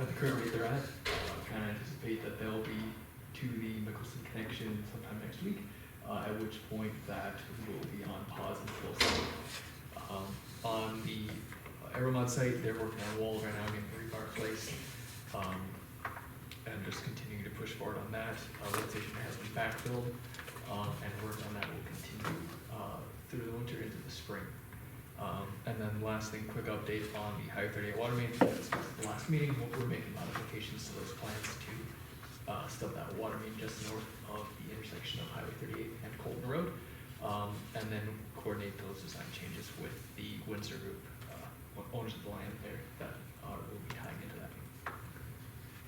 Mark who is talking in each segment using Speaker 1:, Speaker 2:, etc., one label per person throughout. Speaker 1: at the current rate they're at, uh, kind of anticipate that they'll be to the Mickelson connection sometime next week, uh, at which point that will be on pause until summer. Um, on the Aeromod site, they're working on walls right now, getting rebar placed. Um, and just continuing to push forward on that. Uh, lift station has been backfilled, um, and work on that will continue, uh, through the winter into the spring. Um, and then last thing, quick update on the Highway thirty-eight water main, as discussed at the last meeting, what we're making modifications to those plans to, uh, stub that water main just north of the intersection of Highway thirty-eight and Colton Road. Um, and then coordinate those design changes with the Windsor Group, uh, owners of the land there that, uh, will be tying into that.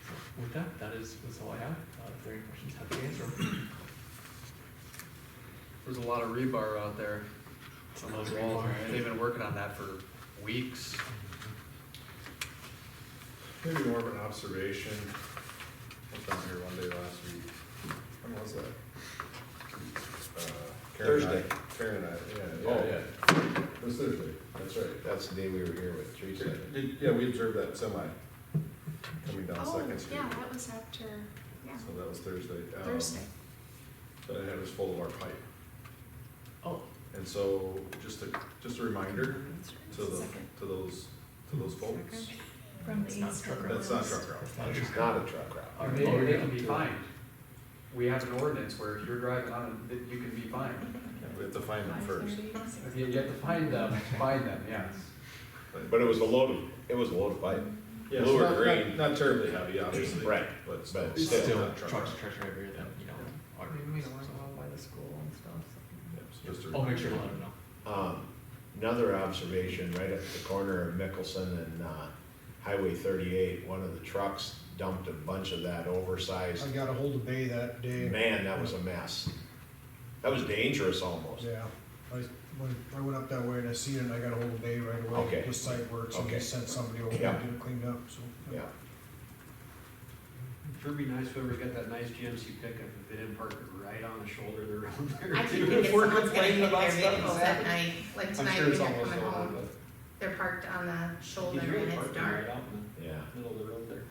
Speaker 1: So With that, that is, that's all I have. Uh, if there are any questions, happy to answer. them.
Speaker 2: There's a lot of rebar out there on those walls. They've been working on that for weeks.
Speaker 3: Maybe more of an observation. I was down here one day last week. When was that? Uh, Karen and I-
Speaker 4: Thursday.
Speaker 3: Karen and I, yeah,
Speaker 4: Oh.
Speaker 3: yeah, yeah. It was Thursday, that's right.
Speaker 4: That's the day we were here with Teresa.
Speaker 3: Did- Yeah, we observed that semi coming down
Speaker 5: Oh,
Speaker 3: Second Street.
Speaker 5: yeah, that was after, yeah,
Speaker 3: So that was Thursday. Um,
Speaker 5: Thursday.
Speaker 3: That I had was full of our pipe.
Speaker 1: Oh,
Speaker 3: And so, just a, just a reminder to the, to those, to those folks.
Speaker 5: From
Speaker 1: It's
Speaker 5: the
Speaker 1: not
Speaker 5: east.
Speaker 1: truck
Speaker 5: of
Speaker 3: That's not
Speaker 5: Rose.
Speaker 3: truck route.
Speaker 1: it's not
Speaker 4: It's
Speaker 1: just.
Speaker 4: not a truck route.
Speaker 1: Or maybe
Speaker 2: Or
Speaker 1: they
Speaker 2: they can
Speaker 1: can
Speaker 2: be
Speaker 1: do it.
Speaker 2: fined. We have an ordinance where if you're driving on it, that you can be fined.
Speaker 3: We have to find them first.
Speaker 5: 5:30.
Speaker 2: You you have to find them, find them, yes.
Speaker 4: But it was a loaded, it was a loaded pipe.
Speaker 3: Yeah,
Speaker 4: Blue or
Speaker 3: not- not-
Speaker 4: green.
Speaker 3: Not terribly heavy, obviously.
Speaker 4: Right.
Speaker 3: But
Speaker 4: But
Speaker 1: It's
Speaker 4: Still
Speaker 1: still
Speaker 3: not truck
Speaker 1: trucks,
Speaker 3: route.
Speaker 1: trucks are everywhere then, you know. are-
Speaker 6: Maybe the ones owned by the school and stuff. so-
Speaker 3: Yep, so just a
Speaker 1: I'll
Speaker 3: reminder.
Speaker 1: make sure to let them know.
Speaker 4: Um, Another observation, right at the corner of Mickelson and uh, Highway 38, one of the trucks dumped a bunch of that oversized.
Speaker 7: I got a hold of Bay that day,
Speaker 4: Man, that was a mess. That was dangerous almost.
Speaker 7: yeah. I, when I went up that way and I seen it, and I got a hold of Bay right away.
Speaker 4: Okay.
Speaker 7: The site works, and
Speaker 4: Okay.
Speaker 7: they sent somebody over to
Speaker 4: Yeah.
Speaker 7: get it cleaned up, so.
Speaker 4: Yeah.
Speaker 8: Sure be nice whoever's got that nice GMC pickup, if they didn't park it right on the shoulder of the road there.
Speaker 9: I keep
Speaker 8: too.
Speaker 9: thinking
Speaker 8: If we're
Speaker 9: someone's gonna
Speaker 8: complaining
Speaker 9: hit
Speaker 8: about
Speaker 9: their
Speaker 8: stuff
Speaker 9: vehicles
Speaker 8: happening.
Speaker 9: that night, like
Speaker 8: I'm
Speaker 9: tonight,
Speaker 8: sure
Speaker 9: when
Speaker 8: it's
Speaker 9: they're
Speaker 8: almost
Speaker 9: coming
Speaker 8: over,
Speaker 9: home,
Speaker 8: but
Speaker 9: they're parked on the shoulder
Speaker 8: you hear
Speaker 9: and
Speaker 8: it
Speaker 9: it's
Speaker 8: parking right
Speaker 9: dark.
Speaker 8: out in
Speaker 4: Yeah.
Speaker 8: the middle of the road there.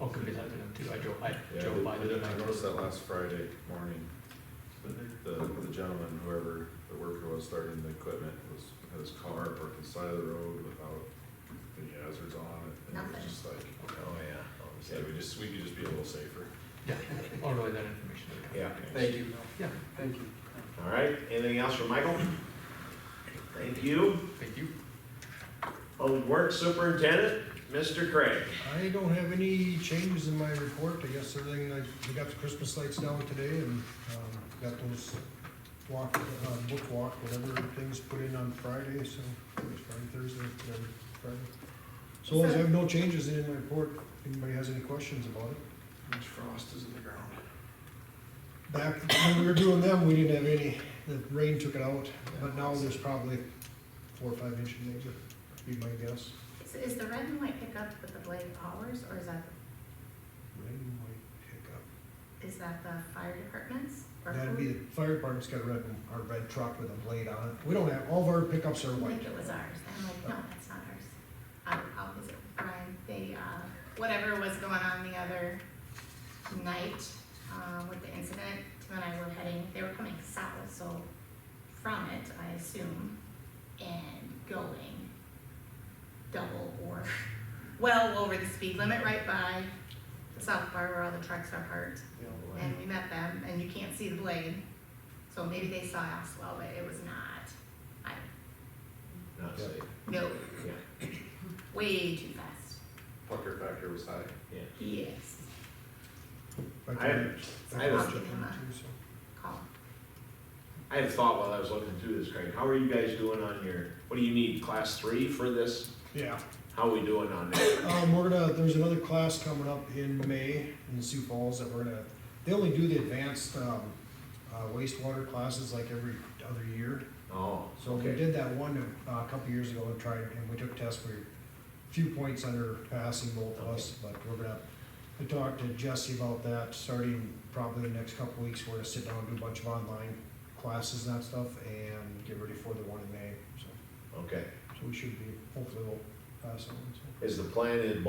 Speaker 1: I'll convey that to them too. I drove, I
Speaker 3: Yeah,
Speaker 1: drove by
Speaker 3: I
Speaker 1: the
Speaker 3: did- I noticed
Speaker 1: night.
Speaker 3: that last Friday morning. The, the gentleman, whoever the worker was starting the equipment, was, had his car parked on the side of the road without any hazards on it. And it was
Speaker 9: Nothing.
Speaker 3: just like,
Speaker 4: Oh, yeah.
Speaker 3: yeah, we just, we could just be a little safer.
Speaker 1: Yeah, I'll relay that information to the company.
Speaker 4: Yeah.
Speaker 2: Thank you.
Speaker 1: Yeah,
Speaker 2: Thank you.
Speaker 4: All right. Anything else from Michael? Thank you.
Speaker 1: thank you.
Speaker 4: Old Work Superintendent, Mr. Craig.
Speaker 7: I don't have any changes in my report, I guess everything, I, we got the Christmas lights down today and, um, got those walk, uh, book walk, whatever things put in on Friday, so, it was Friday, Thursday, whatever, Friday. So long as I have no changes in my report, anybody has any questions about it?
Speaker 3: How much frost is in the ground?
Speaker 7: Back when we were doing them, we didn't have any, the rain took it out, but now there's probably four or five inches, maybe, be my guess.
Speaker 9: Is, is the red and white pickup with the blade hours, or is that,
Speaker 7: Rain might pick up.
Speaker 9: is that the fire department's? or
Speaker 7: That'd
Speaker 9: who-
Speaker 7: be, the fire department's got a red, our red truck with a blade on it. We don't have, all of our pickups are
Speaker 9: I
Speaker 7: white.
Speaker 9: think it was ours, I'm like, no, that's not ours. Um, I'll visit with Brian, they, uh, whatever was going on the other night, uh, with the incident, Tim and I were heading, they were coming south, so from it, I assume, and going double or well over the speed limit right by the south bar where all the trucks are parked.
Speaker 4: Oh,
Speaker 9: And we met them, and you can't see the blade, so maybe they saw us well, but it was not, I,
Speaker 4: Not safe.
Speaker 9: no,
Speaker 4: Yeah.
Speaker 9: way too fast.
Speaker 3: Pucker factor was high.
Speaker 4: Yeah.
Speaker 9: Yes.
Speaker 7: Like
Speaker 4: I have, I
Speaker 7: our-
Speaker 4: have
Speaker 7: our
Speaker 4: a-
Speaker 7: truck too, so.
Speaker 9: Call.
Speaker 4: I had a thought while I was looking through this, Craig. How are you guys doing on your, what do you need, class three for this?
Speaker 7: Yeah,
Speaker 4: How are we doing on that?
Speaker 7: um, we're gonna, there's another class coming up in May in Sioux Falls that we're gonna, they only do the advanced, um, uh, wastewater classes like every other year.
Speaker 4: Oh,
Speaker 7: So we did that one uh, a couple years ago and tried, and we took tests, we were a few points under passing both of us, but we're gonna, we talked to Jesse about that, starting probably in the next couple weeks, we're gonna sit down and do a bunch of online classes and that stuff, and get ready for the one in May, so,
Speaker 4: okay.
Speaker 7: so we should be, hopefully we'll pass on, so.
Speaker 4: Is the plan in